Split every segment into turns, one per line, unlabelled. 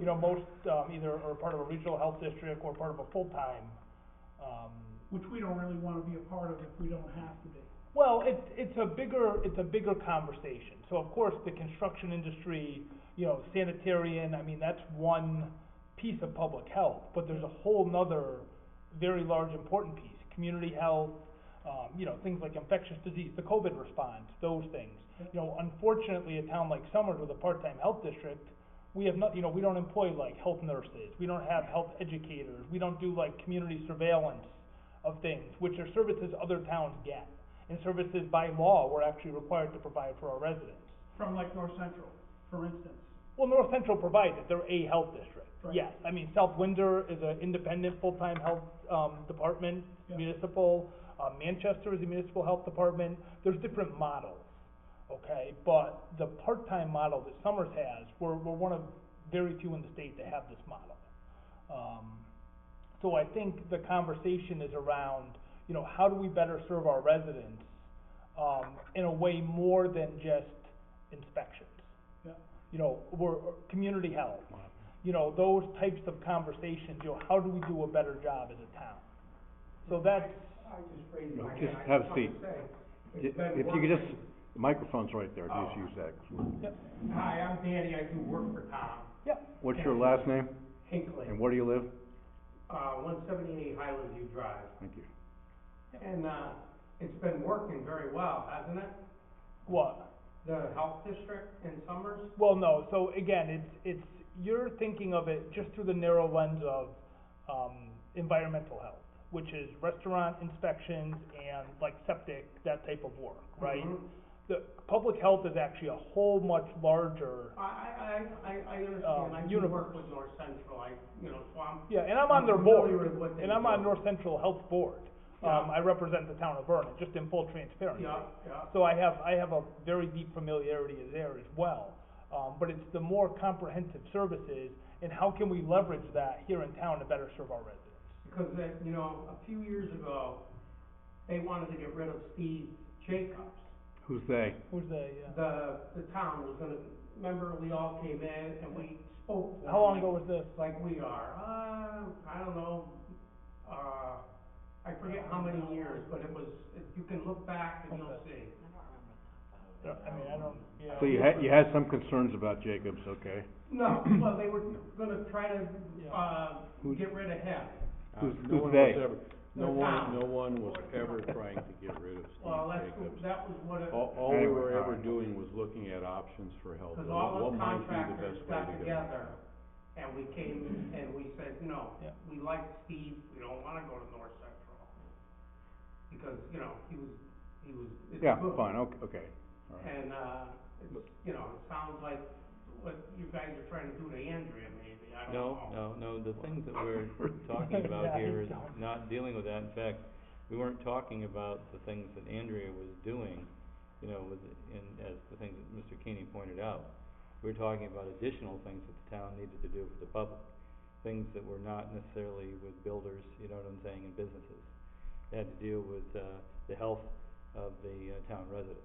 you know, most, um, either are part of a regional health district or part of a full-time, um,
which we don't really wanna be a part of if we don't have to be.
Well, it's, it's a bigger, it's a bigger conversation. So of course, the construction industry, you know, sanitarian, I mean, that's one piece of public health, but there's a whole nother very large important piece, community health, um, you know, things like infectious disease, the COVID response, those things. You know, unfortunately, a town like Summers with a part-time health district, we have not, you know, we don't employ like health nurses, we don't have health educators, we don't do like community surveillance of things, which are services other towns get and services by law we're actually required to provide for our residents.
From like North Central, for instance,
Well, North Central provides it, they're a health district,
Right.
yes. I mean, South Winder is an independent, full-time health, um, department,
Yeah.
municipal. Uh, Manchester is a municipal health department, there's different models, okay? But the part-time model that Summers has, we're, we're one of very few in the state that have this model. Um, so I think the conversation is around, you know, how do we better serve our residents, um, in a way more than just inspections?
Yeah.
You know, we're, or community health, you know, those types of conversations, you know, how do we do a better job as a town? So that's,
I just raised my hand.
Just
I
have a
wanted to
seat.
say, it's been
If you could just,
working.
the microphone's right there, just
Oh.
use that.
Hi, I'm Danny, I do work for Tom
yeah,
What's your last name and
Hinkley,
where do you live?
uh, one seventy-eight Highland View Drive.
Thank you.
And, uh, it's been working very well, hasn't it?
what?
The health district in Summers?
Well, no, so again, it's, it's, you're thinking of it just through the narrow lens of, um, environmental health, which is restaurant inspections and like septic, that type of work, right?
Mhm.
The, public health is actually a whole much larger,
I, I, I, I- I
Um,
Uh,
understand, I do
universe.
work with North Central, I, you know, so I'm.
yeah, and I'm on their
I'm
board.
familiar with what they
And I'm on
do.
North Central Health Board. Um,
Yeah.
I represent the town of Vernon, just in full transparency.
Yeah, yeah.
So I have, I have a very deep familiarity there as well. Um, but it's the more comprehensive services and how can we leverage that here in town to better serve our residents?
Because that, you know, a few years ago, they wanted to get rid of Steve Jacobs.
Who's they?
Who's the, uh,
The, the town was gonna, remember, we all came in and we spoke. for
how long
him,
ago was this?
Like we are, uh, I don't know, uh, I forget how many years, but it was, if you can look back and you'll see.
I mean, I don't, yeah.
So you had, you had some concerns about Jacobs, okay?
No, well, they were gonna try to, uh,
Who's-
get rid of him.
Uh,
Who's-
no one
who's
was
they?
ever- No
The
one,
town.
no one was ever trying to get rid of
Well, that's,
Steve Jacobs.
that was what it,
All, all we
Anyway,
were ever
fine.
doing was looking at options for health,
cause
and
all
what
the
might be the
contractors
best way
got
to go.
together and we came and we said, no,
Yeah.
we like Steve, we don't wanna go to North Central. Because, you know, he was, he was, it's
Yeah,
good.
fine, okay, okay. All right.
And, uh, it's, you know, it sounds like what you guys are trying to do to Andrea maybe, I don't
No,
know.
no, no, the things that we're talking
Yeah,
about
I
here is
don't.
not dealing with that, in fact, we weren't talking about the things that Andrea was doing, you know, with, in, as the things that Mr. Keeney pointed out. We We're talking about additional things that the town needed to do for the public, things that were not necessarily with builders, you know what I'm saying, and businesses. It had to deal with, uh, the health of the, uh, town residents,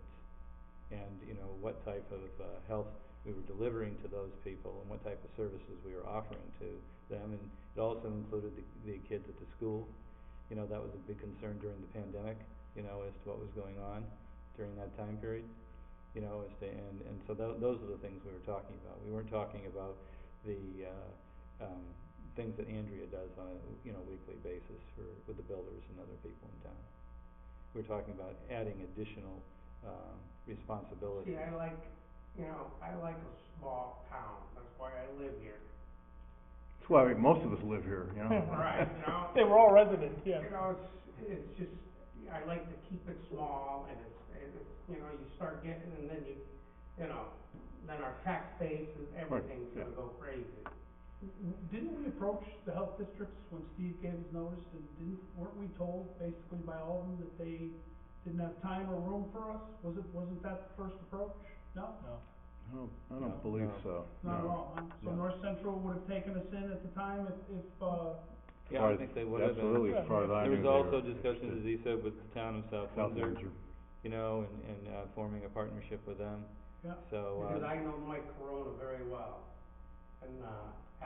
and, you know, what type of, uh, health we were delivering to those people and what type of services we were offering to them. And it also included the, the kids at the school. You know, that was a big concern during the pandemic, you know, as to what was going on during that time period. You know, as to, and, and so tho- those are the things we were talking about. We weren't talking about the, uh, um, things that Andrea does on a, you know, weekly basis for, with the builders and other people in town. We're talking about adding additional, um, responsibilities.
See, I like, you know, I like a small town, that's why I live here.
That's why we- most of us live here, you know?
Right, you know?
They were all residents, yeah.
You know, it's, it's just, I like to keep it small and it's, and it's, you know, you start getting and then you, you know, then our tax base and everything's
yeah.
gonna go crazy.
W- Didn't we approach the health districts when Steve gave his notice and didn't, weren't we told basically by all of them that they didn't have time or room for us? Was it, wasn't that the first approach? No,
No.
I don't- I don't believe so,
not at
no.
all, huh? So
No.
North Central would have taken us in at the time if, if, uh,
Yeah, I think they would have been.
Absolutely, as far as I
There
knew.
was
they
also
were
discussions, as
interested.
he said, with the town of South
South Windsor.
Windsor, you know, and, and, uh, forming a partnership with them.
Yeah.
So,
Because
uh,
I know Mike Corona very well. And, uh,